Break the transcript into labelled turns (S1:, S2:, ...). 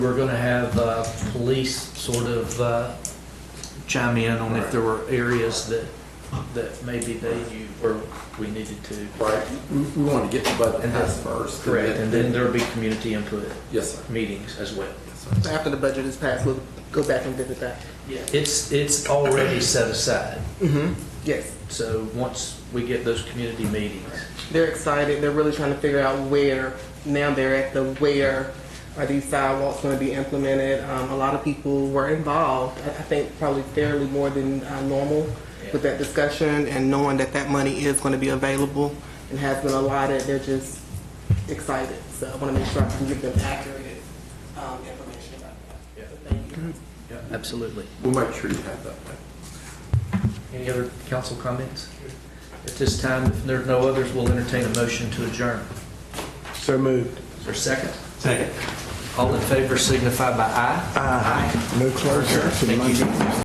S1: We're going to have uh, police sort of uh, chime in on if there were areas that, that maybe they knew where we needed to.
S2: Right, we, we want to get to budget
S1: And
S2: pass first. and
S1: Correct, and then there'll be community input
S2: Yes, sir.
S1: meetings as well.
S2: Yes, sir.
S3: After the budget is passed, we'll go back and visit that.
S1: It's, it's already set aside,
S3: Mm-hmm. Yes,
S1: so once we get those community meetings,
S3: they're excited. They're really trying to figure out where, now they're at the where are these sidewalks going to be implemented. Um, a lot of people were involved, I I think probably fairly more than uh, normal with that discussion and knowing that that money is going to be available and has been allotted, they're just excited. So I want to make sure I can give them accurate um, information about that. So Thank you.
S1: Yeah, absolutely.
S2: We'll make sure you have that.
S1: Any other council comments? At this time, if there are no others, we'll entertain a motion to adjourn.
S2: So moved.
S1: Is there a second?
S2: Second.
S1: All in favor signify by aye. Aye.
S2: No closure.
S1: Thank you.